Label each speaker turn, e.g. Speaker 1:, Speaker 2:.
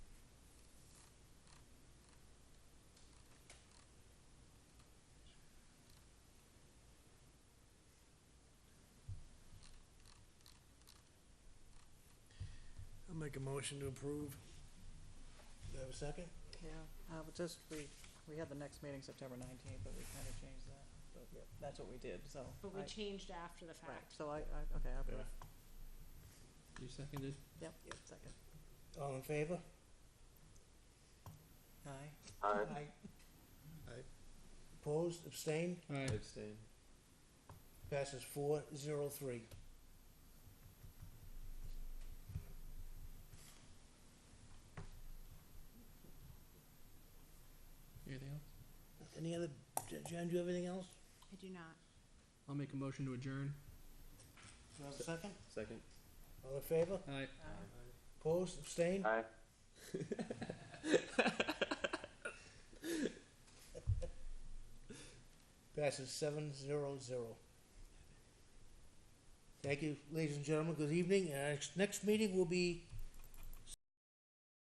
Speaker 1: Make a motion to approve. Do I have a second?
Speaker 2: Yeah, uh, but just, we, we had the next meeting September nineteenth, but we kinda changed that, but that's what we did, so.
Speaker 3: But we
Speaker 2: I-
Speaker 3: changed after the
Speaker 2: Right,
Speaker 3: fact.
Speaker 2: so I, I, okay, I approve,
Speaker 4: You seconded?
Speaker 2: yep, second.
Speaker 1: All in favor?
Speaker 2: Aye.
Speaker 1: Aye.
Speaker 4: Aye.
Speaker 1: Opposed, abstained,
Speaker 4: Aye.
Speaker 5: Abstain.
Speaker 1: passes four zero three.
Speaker 4: Anything else?
Speaker 1: Any other, Jen, Jen, do you have anything else?
Speaker 3: I do not.
Speaker 4: I'll make a motion to adjourn.
Speaker 1: Do I have a second?
Speaker 5: Second.
Speaker 1: All in favor?
Speaker 4: Aye.
Speaker 1: Opposed, abstained?
Speaker 5: Aye.
Speaker 1: Passes seven zero zero. Thank you, ladies and gentlemen, good evening, and our next- next meeting will be